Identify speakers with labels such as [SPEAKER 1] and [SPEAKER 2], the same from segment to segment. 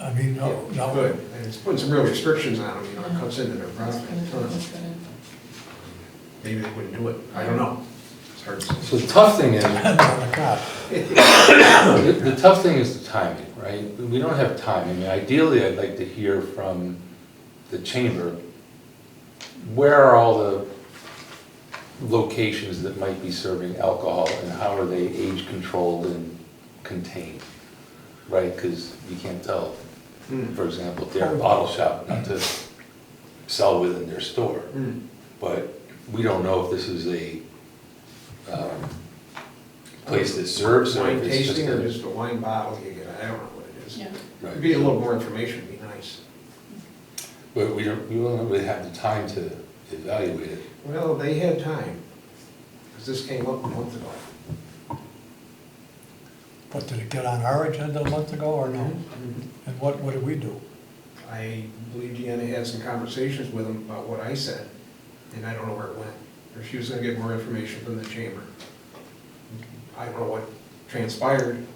[SPEAKER 1] I mean, no,
[SPEAKER 2] Yeah,
[SPEAKER 1] no.
[SPEAKER 2] Good, and Oh, it's putting some real restrictions on them, you know, it cuts into their profit a ton. Maybe they wouldn't do it, I don't know. It's hard to
[SPEAKER 3] So
[SPEAKER 2] say.
[SPEAKER 3] the tough thing is,
[SPEAKER 1] Depends on the cop.
[SPEAKER 3] the the tough thing is the timing, right? We don't have time. I mean, ideally, I'd like to hear from the chamber, where are all the locations that might be serving alcohol and how are they age controlled and contained? Right, because you can't tell,
[SPEAKER 2] Hmm.
[SPEAKER 3] for example, if they're a bottle shop, not to sell within their store.
[SPEAKER 2] Hmm.
[SPEAKER 3] But we don't know if this is a um, place that serves or
[SPEAKER 2] Wine
[SPEAKER 3] if it's just
[SPEAKER 2] tasting or
[SPEAKER 3] a...
[SPEAKER 2] just a wine bottle you get, I don't know what it is.
[SPEAKER 4] Yeah.
[SPEAKER 2] It'd
[SPEAKER 3] Right.
[SPEAKER 2] Be a little more information, would be nice.
[SPEAKER 3] But we don't, we don't really have the time to evaluate it.
[SPEAKER 2] Well, they had time, because this came up a month ago.
[SPEAKER 1] But did it get on our agenda a month ago or no?
[SPEAKER 2] Mhm.
[SPEAKER 1] And what, what did we do?
[SPEAKER 2] I believe Deanna had some conversations with them about what I said, and I don't know where it went. Or she was gonna get more information from the chamber. I don't know what transpired.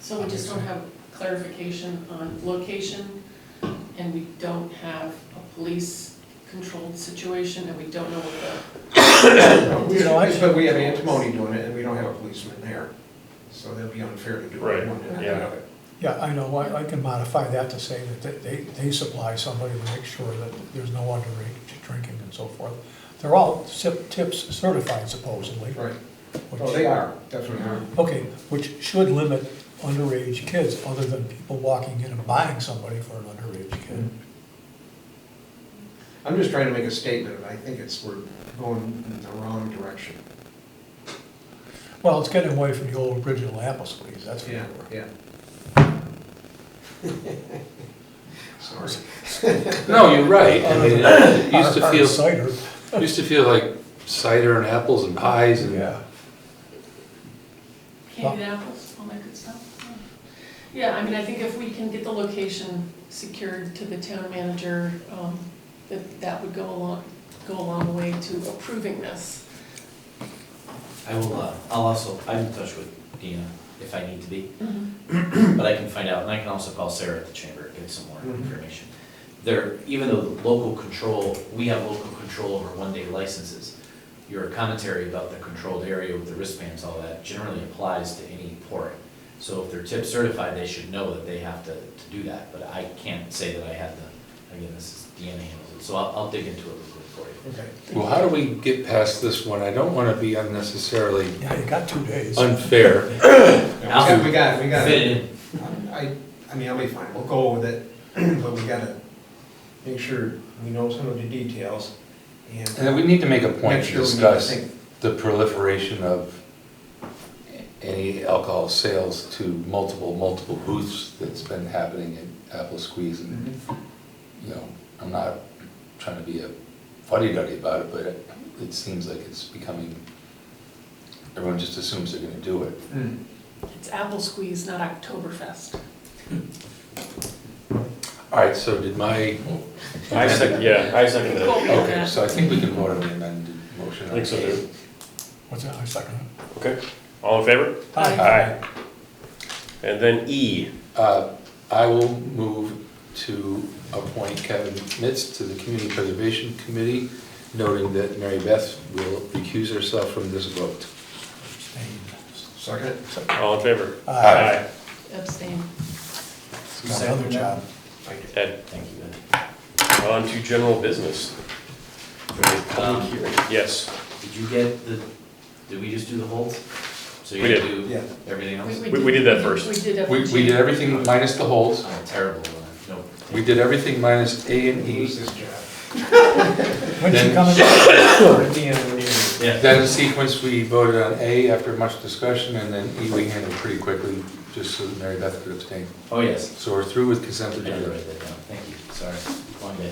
[SPEAKER 4] So we just don't have clarification on location, and we don't have a police-controlled situation, and we don't know what
[SPEAKER 1] You know, I-
[SPEAKER 2] But we have antimony doing it, and we don't have a policeman there, so that'd be unfair to do
[SPEAKER 5] Right,
[SPEAKER 2] one and not the
[SPEAKER 5] yeah.
[SPEAKER 2] other.
[SPEAKER 1] Yeah, I know, I, I can modify that to say that they- they, they supply somebody to make sure that there's no underage drinking and so forth. They're all sip- tips certified supposedly.
[SPEAKER 2] Right,
[SPEAKER 1] which-
[SPEAKER 2] well, they are, definitely are.
[SPEAKER 1] Okay, which should limit underage kids, other than people walking in and buying somebody for an underage kid.
[SPEAKER 2] I'm just trying to make a statement, and I think it's, we're going in the wrong direction.
[SPEAKER 1] Well, it's getting away from the old original apple squeeze, that's for
[SPEAKER 2] Yeah,
[SPEAKER 1] sure.
[SPEAKER 2] yeah. Sorry.
[SPEAKER 3] No, you're right. I mean, it used
[SPEAKER 1] Our-
[SPEAKER 3] to
[SPEAKER 1] our
[SPEAKER 3] feel,
[SPEAKER 1] Cider,
[SPEAKER 3] used to feel like cider and apples and pies and...
[SPEAKER 1] yeah.
[SPEAKER 4] the candied apples, all that good stuff. Yeah, I mean, I think if we can get the location secured to the town manager, um, that, that would go along, go a long way to approving this.
[SPEAKER 6] I will, uh, I'll also, I'm in touch with Dina if I need to be, but I can find out, and I can also call Sarah at the chamber, get some more
[SPEAKER 2] Mhm.
[SPEAKER 6] information. There, even though the local control, we have local control over one-day licenses, your commentary about the controlled area with the wristbands, all that generally applies to any port. So if they're tip certified, they should know that they have to, to do that, but I can't say that I have the, again, this is Deanna handles it, so I'll, I'll dig into it real quick for you.
[SPEAKER 2] Okay.
[SPEAKER 3] Well, how do we get past this one? I don't want to be unnecessarily
[SPEAKER 1] Yeah, you got two days.
[SPEAKER 3] unfair.
[SPEAKER 2] Yeah, We got, it, we got. it.
[SPEAKER 6] Fit it in.
[SPEAKER 2] I, I mean, I'll be fine, we'll go with it, but we gotta make sure we know some of the details
[SPEAKER 3] And
[SPEAKER 2] and.
[SPEAKER 3] we need to make a point
[SPEAKER 2] Make
[SPEAKER 3] to
[SPEAKER 2] sure we
[SPEAKER 3] discuss
[SPEAKER 2] think-
[SPEAKER 3] the proliferation of any alcohol sales to multiple, multiple booths that's been happening at Apple Squeeze. And,
[SPEAKER 2] Mm-hmm.
[SPEAKER 3] you know, I'm not trying to be a fuddy-duddy about it, but it- it seems like it's becoming, everyone just assumes they're gonna do it.
[SPEAKER 2] Hmm.
[SPEAKER 4] It's apple squeeze, not Oktoberfest.
[SPEAKER 3] All right, so did my,
[SPEAKER 5] I second, yeah, I second
[SPEAKER 4] Cool.
[SPEAKER 5] that.
[SPEAKER 3] okay, so I think we can vote on the amended motion.
[SPEAKER 5] I think so too.
[SPEAKER 1] What's that, I second it.
[SPEAKER 5] Okay, all in favor?
[SPEAKER 4] Aye.
[SPEAKER 5] Aye. And then E,
[SPEAKER 3] Uh, I will move to appoint Kevin Mitz to the Community Preservation Committee, noting that Mary Beth will recuse herself from this vote.
[SPEAKER 1] Abstained.
[SPEAKER 2] Second,
[SPEAKER 5] all in favor?
[SPEAKER 1] Aye.
[SPEAKER 4] Abstain.
[SPEAKER 1] Got another job.
[SPEAKER 2] Thank you.
[SPEAKER 5] Ed,
[SPEAKER 6] Thank you, Ben.
[SPEAKER 5] on to general business.
[SPEAKER 6] Um,
[SPEAKER 5] Yes,
[SPEAKER 6] Did you get the, did we just do the holds? So you
[SPEAKER 5] We did.
[SPEAKER 6] do
[SPEAKER 2] Yeah.
[SPEAKER 6] everything else?
[SPEAKER 5] We- we did that first.
[SPEAKER 4] We did
[SPEAKER 3] We, we did
[SPEAKER 4] everything.
[SPEAKER 3] everything minus the holds.
[SPEAKER 6] I'm terrible, uh, no.
[SPEAKER 3] We did everything minus A and
[SPEAKER 2] Lose
[SPEAKER 3] E.
[SPEAKER 2] this job.
[SPEAKER 1] When's she
[SPEAKER 3] Then-
[SPEAKER 1] coming?
[SPEAKER 2] Sure, at the end, we're gonna-
[SPEAKER 6] Yeah,
[SPEAKER 3] Then in sequence, we voted on A after much discussion, and then E we handled pretty quickly, just so that Mary Beth could abstain.
[SPEAKER 6] oh, yes.
[SPEAKER 3] So we're through with consent
[SPEAKER 6] I did
[SPEAKER 3] agenda.
[SPEAKER 6] write that down, thank you, sorry, long day.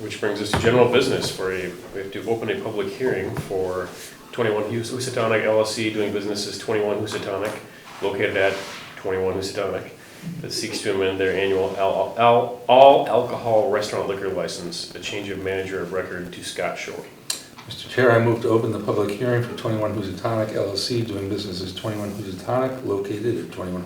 [SPEAKER 5] which brings us to general business for a, we have to open a public hearing for 21 Hus- Housatonic LLC doing business as 21 Housatonic, located at 21 Housatonic, that seeks to amend their annual al- al- all alcohol restaurant liquor license, a change of manager of record to Scott Shore.
[SPEAKER 3] Mr. Chair, I move to open the public hearing for 21 Housatonic LLC, doing business as 21 Housatonic, located at 21